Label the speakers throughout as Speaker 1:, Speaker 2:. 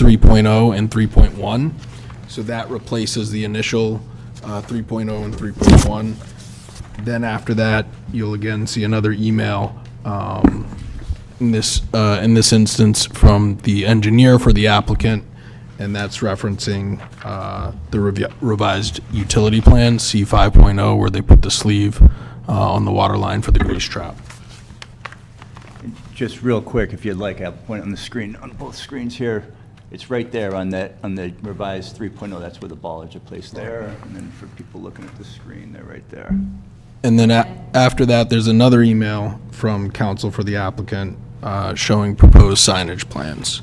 Speaker 1: 3.0 and 3.1. So that replaces the initial uh, 3.0 and 3.1. Then after that, you'll again see another email, um, in this, uh, in this instance, from the engineer for the applicant, and that's referencing uh, the revi- revised utility plan, C 5.0, where they put the sleeve uh, on the water line for the grease trap.
Speaker 2: Just real quick, if you'd like, I'll point on the screen, on both screens here. It's right there on that, on the revised 3.0, that's where the bollards are placed there. And then for people looking at the screen, they're right there.
Speaker 1: And then a- after that, there's another email from counsel for the applicant uh, showing proposed signage plans.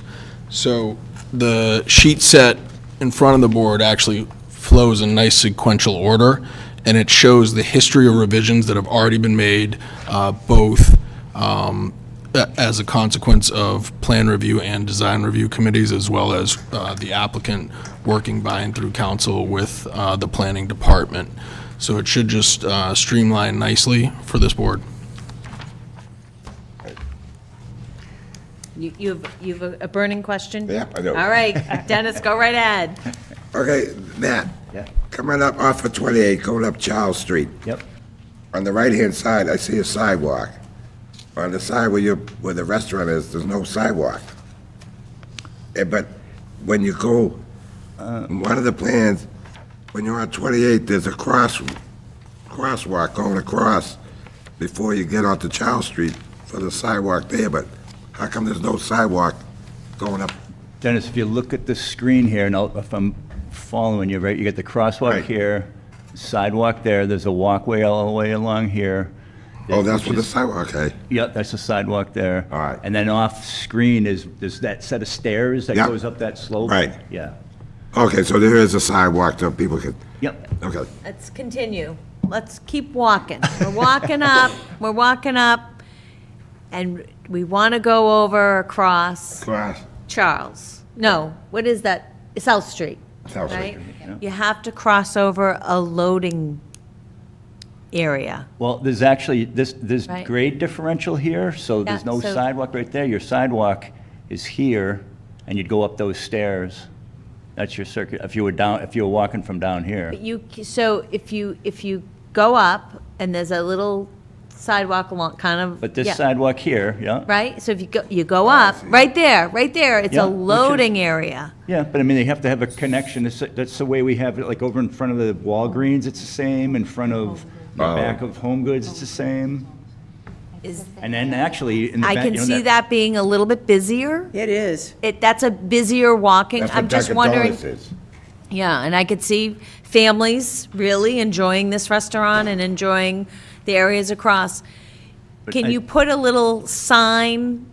Speaker 1: So the sheet set in front of the board actually flows in nice sequential order, and it shows the history of revisions that have already been made, uh, both um, a- as a consequence of plan review and design review committees, as well as uh, the applicant working by and through council with uh, the planning department. So it should just uh, streamline nicely for this board.
Speaker 3: You, you have, you have a burning question?
Speaker 4: Yeah, I do.
Speaker 3: All right, Dennis, go right ahead.
Speaker 4: Okay, Matt,
Speaker 2: Yeah?
Speaker 4: coming up off of 28, going up Charles Street.
Speaker 2: Yep.
Speaker 4: On the right-hand side, I see a sidewalk. On the side where you, where the restaurant is, there's no sidewalk. Eh, But when you go, in one of the plans, when you're on 28, there's a cross, crosswalk going across before you get onto Charles Street for the sidewalk there, but how come there's no sidewalk going up?
Speaker 2: Dennis, if you look at the screen here, and I'll- if I'm following you, right, you got the crosswalk
Speaker 4: Right.
Speaker 2: here, sidewalk there, there's a walkway all the way along here.
Speaker 4: Oh, that's where
Speaker 2: Which
Speaker 4: the
Speaker 2: is-
Speaker 4: sidewalk, okay.
Speaker 2: Yep, that's the sidewalk there.
Speaker 4: All right.
Speaker 2: And then off-screen is, is that set of stairs that
Speaker 4: Yeah.
Speaker 2: goes up that slope?
Speaker 4: Right.
Speaker 2: Yeah.
Speaker 4: Okay, so there is a sidewalk so people can,
Speaker 2: Yep.
Speaker 4: okay.
Speaker 3: Let's continue. Let's keep walking. We're walking up, we're walking up, and we want to go over across
Speaker 4: Cross.
Speaker 3: Charles. No, what is that? South Street,
Speaker 4: South Street.
Speaker 3: right?
Speaker 2: Yeah.
Speaker 3: You have to cross over a loading area.
Speaker 2: Well, there's actually, this, there's
Speaker 3: Right.
Speaker 2: grade differential here, so there's
Speaker 3: Yeah,
Speaker 2: no
Speaker 3: so-
Speaker 2: sidewalk right there. Your sidewalk is here, and you'd go up those stairs. That's your circuit, if you were down, if you were walking from down here.
Speaker 3: You, c- so if you, if you go up, and there's a little sidewalk along, kind of.
Speaker 2: But this
Speaker 3: yeah.
Speaker 2: sidewalk here, yeah,
Speaker 3: right? So if you go, you go up, right there, right there,
Speaker 2: Oh,
Speaker 3: it's
Speaker 2: Yeah,
Speaker 3: a
Speaker 2: which is-
Speaker 3: loading area.
Speaker 2: yeah, but I mean, they have to have a connection. It's- That's the way we have it, like over in front of the Walgreens, it's the same, in front of, the
Speaker 4: Oh.
Speaker 2: back of Home Goods, it's the same.
Speaker 3: Is,
Speaker 2: And then actually, in the
Speaker 3: I
Speaker 2: back,
Speaker 3: can
Speaker 2: you know,
Speaker 3: see that being a little bit busier.
Speaker 5: It is.
Speaker 3: It, that's a busier walking,
Speaker 4: That's what
Speaker 3: I'm just
Speaker 4: Dunkin'
Speaker 3: wondering.
Speaker 4: Donuts is.
Speaker 3: Yeah, and I could see families really enjoying this restaurant and enjoying the areas across.
Speaker 2: But I-
Speaker 3: Can you put a little sign,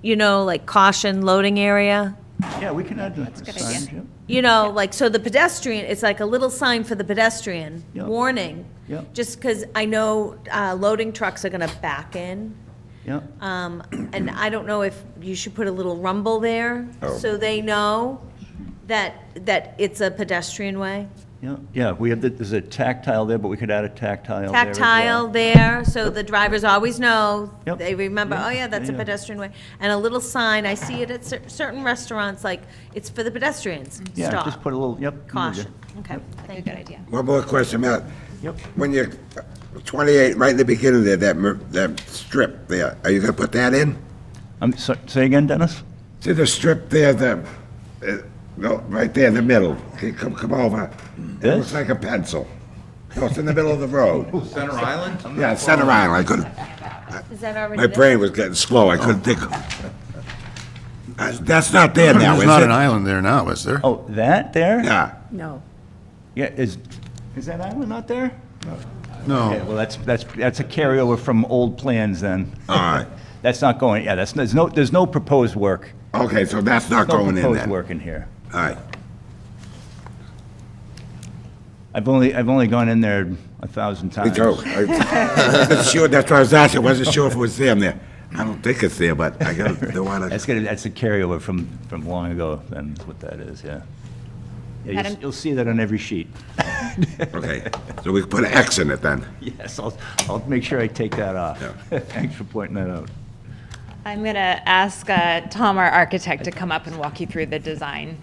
Speaker 3: you know, like caution loading area?
Speaker 2: Yeah, we can add the signs, yeah.
Speaker 3: You know, like, so the pedestrian, it's like a little sign for the pedestrian,
Speaker 2: Yeah.
Speaker 3: warning.
Speaker 2: Yeah.
Speaker 3: Just because I know uh, loading trucks are going to back in,
Speaker 2: yeah.
Speaker 3: um, and I don't know if you should put a little rumble there,
Speaker 2: Oh.
Speaker 3: so they know that, that it's a pedestrian way.
Speaker 2: Yeah, yeah, we have, the- there's a tactile there, but we could add a tactile Oh, there as well.
Speaker 3: Tactile there, so the drivers always know,
Speaker 2: Yep.
Speaker 3: they remember,
Speaker 2: Yeah.
Speaker 3: oh yeah, that's a
Speaker 2: Yeah, yeah.
Speaker 3: pedestrian way. And a little sign, I see it at cer- certain restaurants, like, it's for the pedestrians,
Speaker 2: Yeah, just
Speaker 3: stop,
Speaker 2: put a little, yep. you know,
Speaker 3: caution. Okay, thank you.
Speaker 4: One more question, Matt.
Speaker 2: Yep.
Speaker 4: When you're 28, right in the beginning there, that, mer- that strip there, are you gonna put that in?
Speaker 2: Um, so- say again, Dennis?
Speaker 4: See the strip there, the, uh, no, right there in the middle? Okay, Come, come over. It
Speaker 2: This?
Speaker 4: looks like a pencil. No, it's in the middle of the road.
Speaker 6: Center Island?
Speaker 4: Yeah, center aisle, I couldn't,
Speaker 3: Is that already
Speaker 4: my brain was getting slow, I couldn't think. of- Uh, That's not there now, is
Speaker 6: There's
Speaker 4: it?
Speaker 6: not an island there now, is there?
Speaker 2: Oh, that there?
Speaker 4: Yeah,
Speaker 5: No.
Speaker 2: Yeah, is, is that island not there? Okay,
Speaker 4: Oh.
Speaker 6: No.
Speaker 2: well, that's, that's, that's a carryover from old plans then.
Speaker 4: all right.
Speaker 2: That's not going, yeah, that's, there's no, there's no proposed work.
Speaker 4: Okay, so that's not
Speaker 2: No
Speaker 4: going in
Speaker 2: proposed
Speaker 4: then? All
Speaker 2: work in here.
Speaker 4: right.
Speaker 2: I've only, I've only gone in there a thousand
Speaker 4: Me
Speaker 2: times.
Speaker 4: too. I wasn't sure, that's what I was asking, I wasn't sure if it was them there. I don't think it's there, but I gotta, don't wanna,
Speaker 2: That's gonna, that's a carryover from, from long ago, then, is what that is, yeah. Yeah, you'll s-
Speaker 7: Madam-
Speaker 2: you'll see that on every sheet.
Speaker 4: okay. So we can put an X in it then.
Speaker 2: Yes, I'll, I'll make sure I take that off. Thanks for pointing that out.
Speaker 3: I'm going to ask uh, Tom, our architect, to come up and walk you through the design.